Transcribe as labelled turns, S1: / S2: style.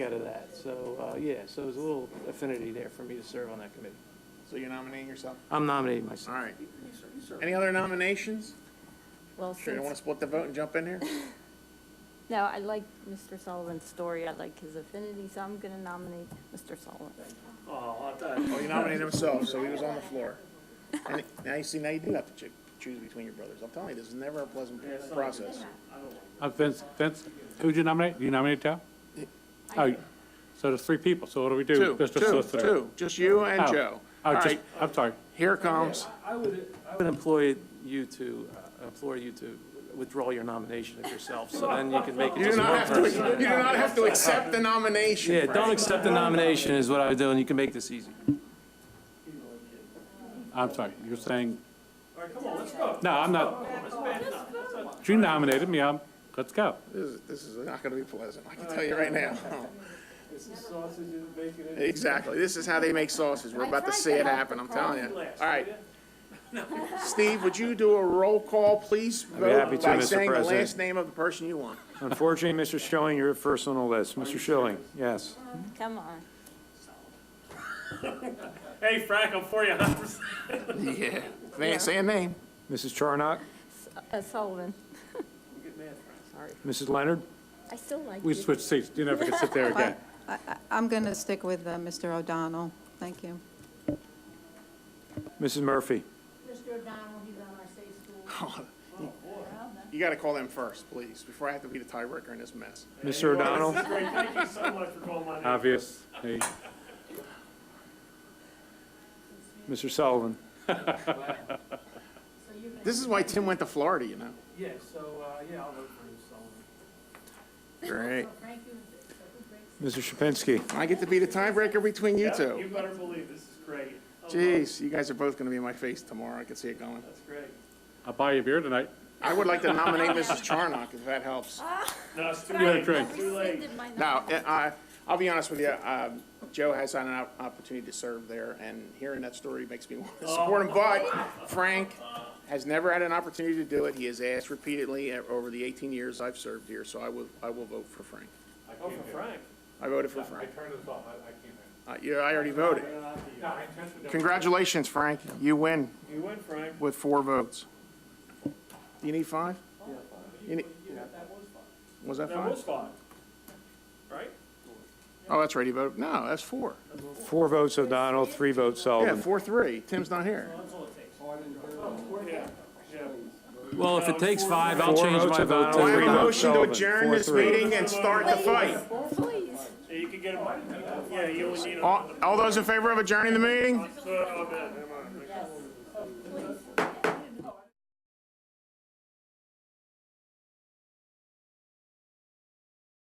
S1: So, uh, yeah, so there's a little affinity there for me to serve on that committee.
S2: So you're nominating yourself?
S1: I'm nominating myself.
S2: All right. Any other nominations?
S3: Well,
S2: Sure, you want
S3: since,
S2: to split the vote and jump in here?
S3: no, I like Mr. Sullivan's story, I like his affinity, so I'm going to nominate Mr. Sullivan.
S2: Oh, you nominated himself, so he was on the floor. And Now you see, now you do have to choo- choose between your brothers. I'm telling you, this is never a pleasant process.
S4: Uh, Vince, Vince, who'd you nominate? You nominated Joe? Oh, so there's three people, so what do we do?
S2: Two,
S4: Mr.
S2: two,
S4: Solicitor?
S2: two, just you and
S4: Oh,
S2: Joe.
S4: Oh,
S2: All
S4: just-
S2: right,
S4: I'm sorry.
S2: here it comes.
S1: I would, I would employ you to, uh, implore you to withdraw your nomination of yourself, so then you can make it
S2: You do
S1: just
S2: not
S1: one
S2: have to,
S1: person.
S2: you do not have to accept the nomination.
S1: Yeah,
S2: Frank.
S1: don't accept the nomination is what I would do, and you can make this easy.
S4: I'm sorry, you're saying. All right, come on, let's go. No, I'm not. You nominated me, I'm, let's go.
S2: This is, this is not gonna be pleasant, I can tell you right now. Exactly, this is how they make sausage, we're about to see it happen, I'm telling you. All right. Steve, would you do a roll call, please?
S5: be happy to,
S2: Vote By
S5: Mr.
S2: saying the
S5: President.
S2: last name of the person you want.
S5: Unfortunately, Mr. Schilling, you're first on the list. Mr. Schilling, yes.
S3: Come on.
S4: Hey, Frank, I'm for you,
S2: Yeah. Say, say a name.
S5: Mrs. Charnock,
S3: Uh, Sullivan. Sorry.
S5: Mrs. Leonard,
S3: I still like
S4: We
S3: you.
S4: switched seats, you never can sit there again.
S6: I- I- I'm going to stick with uh, Mr. O'Donnell. Thank you.
S5: Mrs. Murphy.
S7: Mr. O'Donnell, he's on our safe school.
S2: You gotta call them first, please, before I have to be the tiebreaker in this mess.
S5: Mr. O'Donnell,
S4: Obvious. Hey,
S5: Mr. Sullivan,
S2: This is why Tim went to Florida, you know?
S1: Yeah, so, uh, yeah, I'll vote for you, Sullivan.
S2: Great.
S7: Frank, you, so who breaks?
S5: Mr. Shapinsky.
S2: I get to be the tiebreaker between you two.
S8: better believe this is great.
S2: Jeez, you guys are both gonna be in my face tomorrow, I can see it going.
S8: That's great.
S4: I'll buy you a beer tonight.
S2: I would like to nominate Mrs. Charnock, if that helps.
S8: No, it's too
S4: You had a
S8: late.
S4: drink.
S8: Too late.
S3: Rescinded my nom-
S2: No, I, I'll be honest with you, um, Joe has had an op- opportunity to serve there, and hearing that story makes me want to support him, but Frank has never had an opportunity to do it. He has asked repeatedly uh, over the eighteen years I've served here, so I will, I will vote for Frank.
S8: Oh, for Frank.
S2: I voted for Frank.
S4: turned this off, I, I can't.
S2: Uh, yeah, I already voted. Congratulations, Frank. You win
S8: You win, Frank.
S2: with four votes. Do you need five? You need- Was that
S8: That was
S2: five?
S8: five. Right?
S2: Oh, that's right, he voted. No, that's four.
S5: Four votes O'Donnell, three votes
S1: Oh,
S2: Yeah,
S5: Sullivan.
S2: four, three. Tim's not here.
S8: Yeah. Yeah.
S1: Well, if it takes five, I'll
S5: Four
S1: change
S5: votes
S1: my vote
S5: about
S1: to
S2: Do I have
S1: three
S2: a
S1: votes.
S2: motion to
S5: Sullivan,
S2: adjourn this
S5: 4-3.
S2: meeting and start the fight?
S3: Please.
S8: Oh, Yeah, You could get a, yeah, you would need a,
S2: All, all those in favor of adjourning the meeting?
S8: so, uh,